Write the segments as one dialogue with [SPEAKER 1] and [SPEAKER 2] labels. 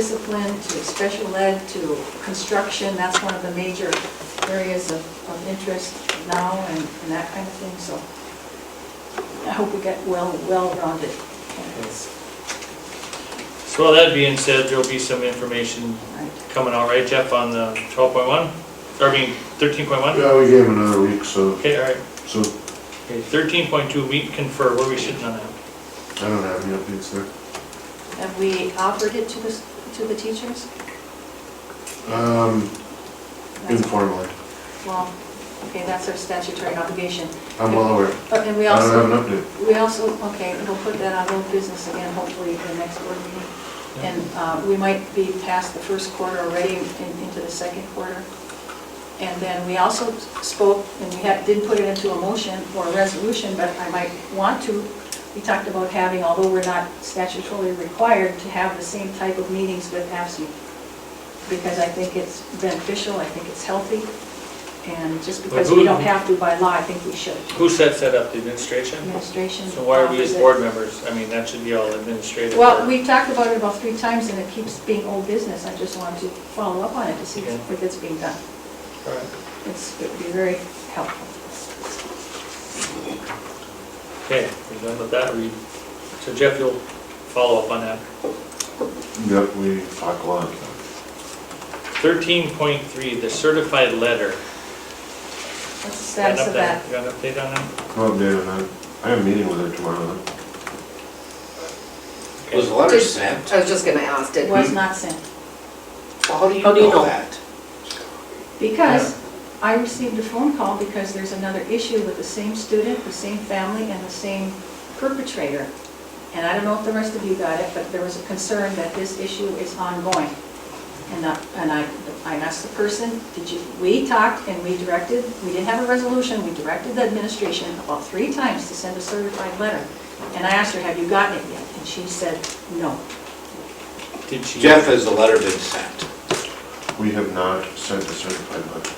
[SPEAKER 1] discipline to special ed to construction. That's one of the major areas of, of interest now and and that kind of thing, so I hope we get well, well-rounded candidates.
[SPEAKER 2] So with that being said, there'll be some information
[SPEAKER 1] Right.
[SPEAKER 2] coming out, right Jeff, on the twelve point one? Or I mean, thirteen point one?
[SPEAKER 3] Yeah, we gave him another week, so,
[SPEAKER 2] Okay, all right.
[SPEAKER 3] so
[SPEAKER 2] Okay, thirteen point two, meet and confer, where are we sitting on that?
[SPEAKER 3] I don't have any updates there.
[SPEAKER 1] Have we offered it to the, s- to the teachers?
[SPEAKER 3] Um,
[SPEAKER 1] That's-
[SPEAKER 3] informally,
[SPEAKER 1] Well, okay, that's our statutory obligation.
[SPEAKER 3] I'm well aware.
[SPEAKER 1] But- And we
[SPEAKER 3] I
[SPEAKER 1] also,
[SPEAKER 3] don't have an update.
[SPEAKER 1] we also, okay, we'll put that on old business again, hopefully in the next board meeting. And uh, we might be past the first quarter already and into the second quarter. And then we also spoke, and we had- didn't put it into a motion or a resolution, but I might want to. We talked about having, although we're not statutorily required, to have the same type of meetings with AFSCME. Because I think it's beneficial, I think it's healthy. And just because we don't have to by law, I think we should.
[SPEAKER 2] Who sets that up, the administration?
[SPEAKER 1] Administration.
[SPEAKER 2] So why are we
[SPEAKER 1] offers
[SPEAKER 2] as
[SPEAKER 1] it.
[SPEAKER 2] board members? I mean, that should be all administrative.
[SPEAKER 1] Well, we talked about it about three times, and it keeps being old business. I just wanted to follow up on it to see
[SPEAKER 2] Okay.
[SPEAKER 1] if it's being done.
[SPEAKER 2] All right.
[SPEAKER 1] It's, it would be very helpful.
[SPEAKER 2] Okay, we're done with that, we, so Jeff, you'll follow up on that.
[SPEAKER 3] Yep, we talk a lot.
[SPEAKER 2] Thirteen point three, the certified letter.
[SPEAKER 1] What's the status of that?
[SPEAKER 2] You got an update on that?
[SPEAKER 3] Well, David, I, I have a meeting with her tomorrow, though.
[SPEAKER 4] Was the letter sent?
[SPEAKER 5] I was just gonna ask,
[SPEAKER 1] It
[SPEAKER 5] did,
[SPEAKER 1] was not sent.
[SPEAKER 4] How do you
[SPEAKER 5] How do you know?
[SPEAKER 4] know that?
[SPEAKER 1] Because I received a phone call because there's another issue with the same student, the same family, and the same perpetrator. And I don't know if the rest of you got it, but there was a concern that this issue is ongoing. And I, and I I asked the person, did you, we talked and we directed, we didn't have a resolution, we directed the administration about three times to send a certified letter. And I asked her, have you gotten it yet? And she said, no.
[SPEAKER 2] Did she?
[SPEAKER 4] Jeff, has the letter been sent?
[SPEAKER 3] We have not sent a certified letter.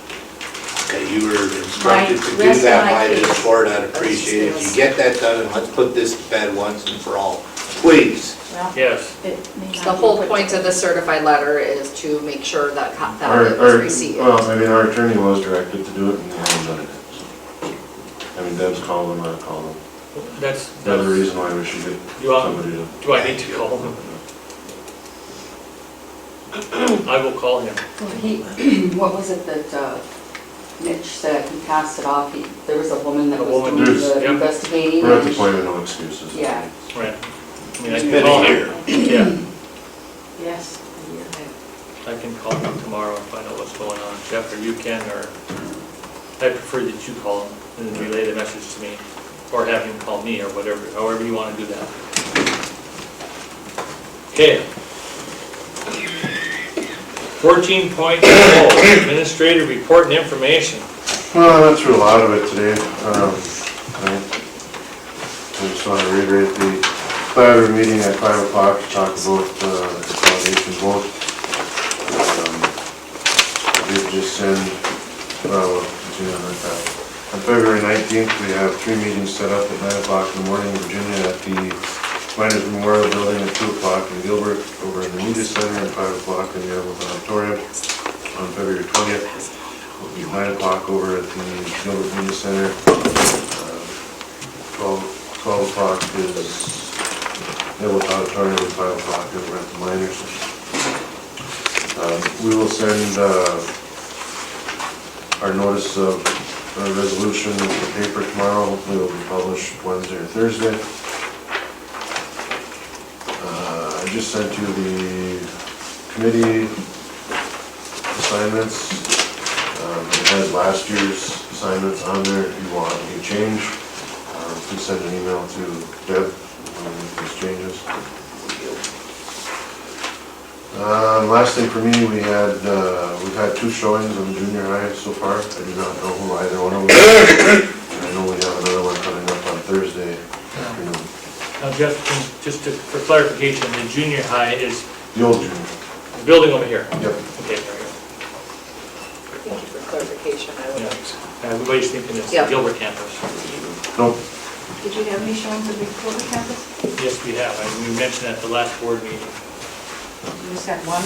[SPEAKER 4] Okay, you were instructed to
[SPEAKER 1] Right,
[SPEAKER 4] do that
[SPEAKER 1] rest
[SPEAKER 4] by
[SPEAKER 1] my
[SPEAKER 4] this
[SPEAKER 1] case.
[SPEAKER 4] board, I'd appreciate it if you get that done, and let's put this to bed once and for all, please.
[SPEAKER 1] Well,
[SPEAKER 2] Yes,
[SPEAKER 1] it may not
[SPEAKER 5] the
[SPEAKER 1] be
[SPEAKER 5] whole
[SPEAKER 1] put-
[SPEAKER 5] point of the certified letter is to make sure that co-
[SPEAKER 3] Our-
[SPEAKER 5] that it was
[SPEAKER 3] our-
[SPEAKER 5] received.
[SPEAKER 3] Well, I mean, our attorney was directed to do it, and they haven't done it yet, so. I mean, Deb's called them, I called them.
[SPEAKER 2] that's,
[SPEAKER 3] Another
[SPEAKER 2] that's,
[SPEAKER 3] reason why we should get
[SPEAKER 2] You want-
[SPEAKER 3] somebody to.
[SPEAKER 2] do I need to call him? I will call him.
[SPEAKER 6] He, what was it that uh, Mitch said, he passed it off, he, there was a woman that
[SPEAKER 2] A
[SPEAKER 6] was
[SPEAKER 2] woman,
[SPEAKER 6] doing
[SPEAKER 3] yes,
[SPEAKER 6] the
[SPEAKER 2] yep.
[SPEAKER 6] investigating.
[SPEAKER 3] We're at the
[SPEAKER 6] and
[SPEAKER 3] point of no excuses.
[SPEAKER 6] Yeah.
[SPEAKER 2] Right. I mean, I
[SPEAKER 4] It's
[SPEAKER 2] can
[SPEAKER 4] been
[SPEAKER 2] call
[SPEAKER 4] a
[SPEAKER 2] him.
[SPEAKER 4] year.
[SPEAKER 2] Yeah,
[SPEAKER 1] Yes.
[SPEAKER 2] I can call him tomorrow and find out what's going on. Jeff, or you can, or I prefer that you call him and then relay the message to me, or have him call me, or whatever, however you want to do that. Okay. Fourteen point oh, administrative report and information.
[SPEAKER 3] Well, I went through a lot of it today. um, I I just want to reiterate the Saturday meeting at five o'clock to talk about uh, the consolidation vote. Um, I Did just send, well, we'll continue on with that. On February nineteenth, we have three meetings set up at nine o'clock in the morning in Virginia at the Miners Memorial Building at two o'clock in Gilbert, over in the media center at five o'clock in the Hamilton Auditorium on February twentieth will be nine o'clock over at the Gilbert Media Center. Uh, Twelve, twelve o'clock is Neville Auditorium, and five o'clock over at the Miners. Um, We will send uh, our notice of our resolution in the paper tomorrow, hopefully it'll be published Wednesday or Thursday. Uh, I just sent you the committee assignments. Um, It has last year's assignments on there, if you want any change, um, please send an email to Deb when we make these changes. Um, Last thing for me, we had, uh, we've had two showings on junior high so far, I do not know who either one of them is. And I know we have another one coming up on Thursday afternoon,
[SPEAKER 2] Now Jeff, can- just to- for clarification, the junior high is
[SPEAKER 3] the old junior,
[SPEAKER 2] the building over here.
[SPEAKER 3] yep.
[SPEAKER 2] Okay, there we go.
[SPEAKER 5] Thank you for clarification, I
[SPEAKER 2] Yeah.
[SPEAKER 5] would.
[SPEAKER 2] Everybody's thinking it's the
[SPEAKER 5] Yeah.
[SPEAKER 2] Gilbert campus.
[SPEAKER 3] Nope,
[SPEAKER 1] Did you have any showings of the Gilbert campus?
[SPEAKER 2] Yes, we have, and we mentioned at the last board meeting.
[SPEAKER 1] just had one